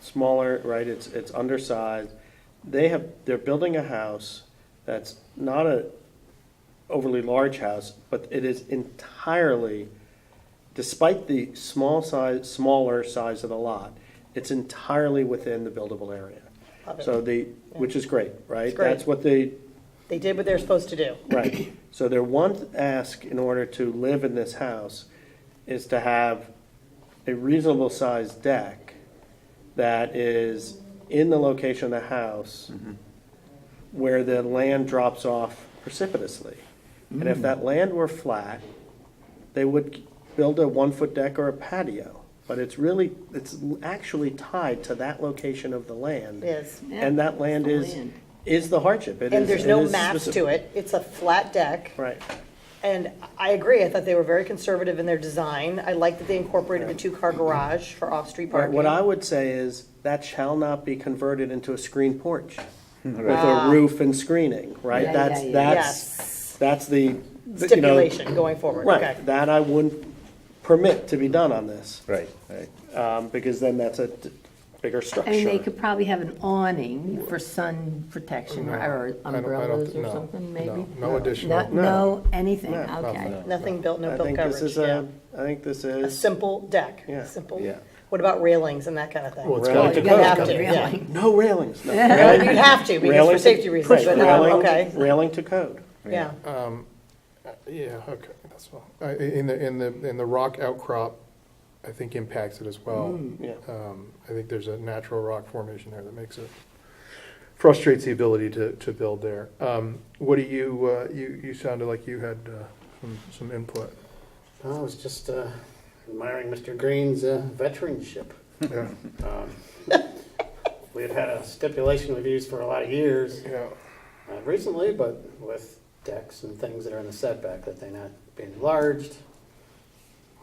smaller, right, it's, it's undersized. They have, they're building a house that's not a overly large house, but it is entirely, despite the small size, smaller size of the lot, it's entirely within the buildable area. Love it. So the, which is great, right? It's great. That's what they They did what they're supposed to do. Right. So their one ask in order to live in this house is to have a reasonable sized deck that is in the location of the house where the land drops off precipitously. And if that land were flat, they would build a one foot deck or a patio. But it's really, it's actually tied to that location of the land. Yes. And that land Yeah, is, it's the land. is the hardship. It And is- there's no is maps specific. to it. It's a flat deck. Right. And I agree. I thought they were very conservative in their design. I like that they incorporated a two-car garage for off-street Right, parking. What I would say is, that shall not be converted into a screen porch Hmm. with a roof and screening, right? Yeah, That's, yeah, yeah. that's, that's the, the- you know. Stipulation going forward, okay. Right, that I wouldn't permit to be done on this, Right, right. um, because then that's a d- bigger structure. And they could probably have an awning for sun protection or- or I don't- I don't umbrellas thi- or no, something, maybe? no, no additional. Not- No, anything, okay. Nothing built, no I built think this coverage, is yeah. a, I think this A is, simple deck, Yeah. simple. Yeah. What about railings and that kind of thing? Well, it's You'd gotta Well, be- it have to, Really? yeah. no railings, no. Railing- You'd have to, because railing for to- safety reasons, right, but, um, railing- okay, Railing to code. yeah. Yeah, okay, that's all. Uh, i- In the, in the, in the rock outcrop, I think impacts it as well. yeah. Um, I think there's a natural rock formation there that makes it, frustrates the ability to, to build there. Um, What do you, uh, you, you sounded like you had uh, some, some input. I was just uh, admiring Mr. Green's uh, veteranship. Yeah. Um, we had had a stipulation we've used for a lot of years Yeah. uh, recently, but with decks and things that are in the setback, that they not be enlarged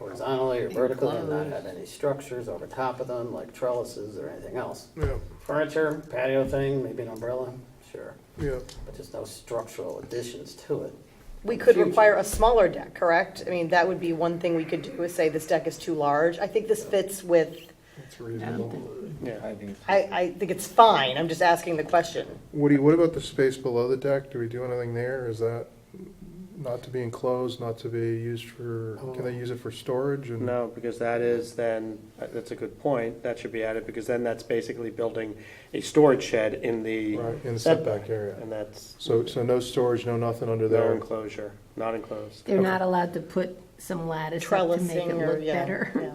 horizontally or vertically and not have any structures over top of them, like trellises or anything else. Yeah, Furniture, patio thing, maybe an umbrella, sure, yeah. but just no structural additions to it. We could Huge. require a smaller deck, correct? I mean, that would be one thing we could do, is say this deck is too large. I think this fits with, It's reasonable. Yeah, I, I think it's fine, I'm just asking the question. Woody, what about the space below the deck? Do we do anything there? Is that not to be enclosed, not to be used for, can they use it for storage and? Oh. No, because that is then, that's a good point, that should be added, because then that's basically building a storage shed in the Right, in the setback setback area. And that's So, so no storage, no nothing under no there? enclosure, not enclosed. They're not allowed to put some lattice up to make it Trellising or, look yeah. yeah. better.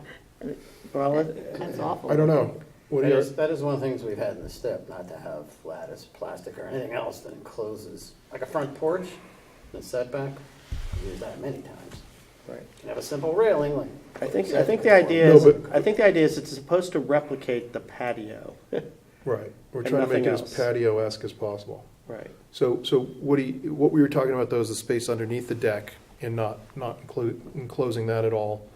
Well, it- That's awful. I don't know. What do That you- is, that is one of the things we've had in the step, not to have lattice, plastic, or anything else that encloses, like a front porch, the setback, we've used that many times. right. You can have a simple railing, like. I what think, you I said think the before. idea No, is, but- I think the idea is it's supposed to replicate the patio, Right, we're And trying to make nothing it as else. patio-esque as possible. right? So, so what do you, what we were talking about though is the space underneath the deck and not, not include, enclosing that at all.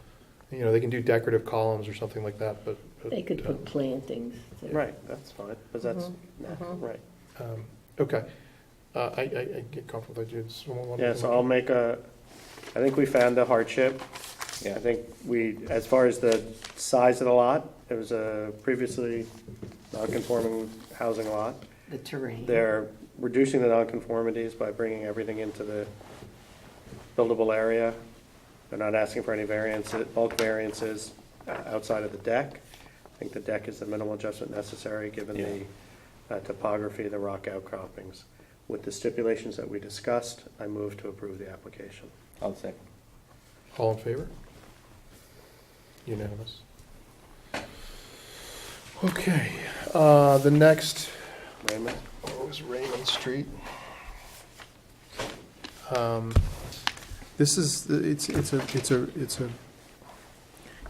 You know, they can do decorative columns or something like that, but. but, They could uh, put plantings. to- Right, that's fine, but that's, nah, right. um, Okay, uh, I, I, I get comfortable with that, dude. Someone want to- Yeah, so I'll make a, I think we found the hardship. I think we, as far as the size of the lot, it was a previously non-conforming housing lot. The terrain. They're reducing the nonconformities by bringing everything into the buildable area. They're not asking for any variances, bulk variances uh, outside of the deck. I think the deck is the minimal adjustment necessary, given the uh, topography, of the rock outcroppings. With the stipulations that we discussed, I move to approve the application. I'll second. All in favor? Unanimous. Okay, uh, the next Raymond? What was Raymond Street? Um, This is, the- it's, it's a, it's a, it's a,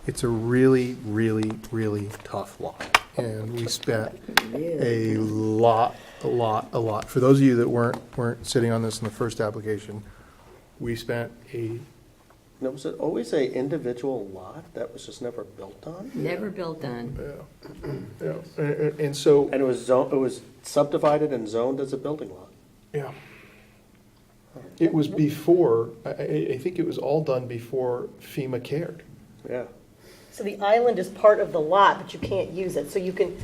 it's a really, really, really tough lot. And we spent a lot, a lot, a lot. For those of you that weren't, weren't sitting on this in the first application, we spent a, No, was it always a individual lot that was just never built on? Never built on. yeah, a- a- and so, And it was zoned, it was subdivided and zoned as a building lot. yeah. It was before, I, I, I think it was all done before FEMA cared. Yeah. So the island is part of the lot, but you can't use it, so you can,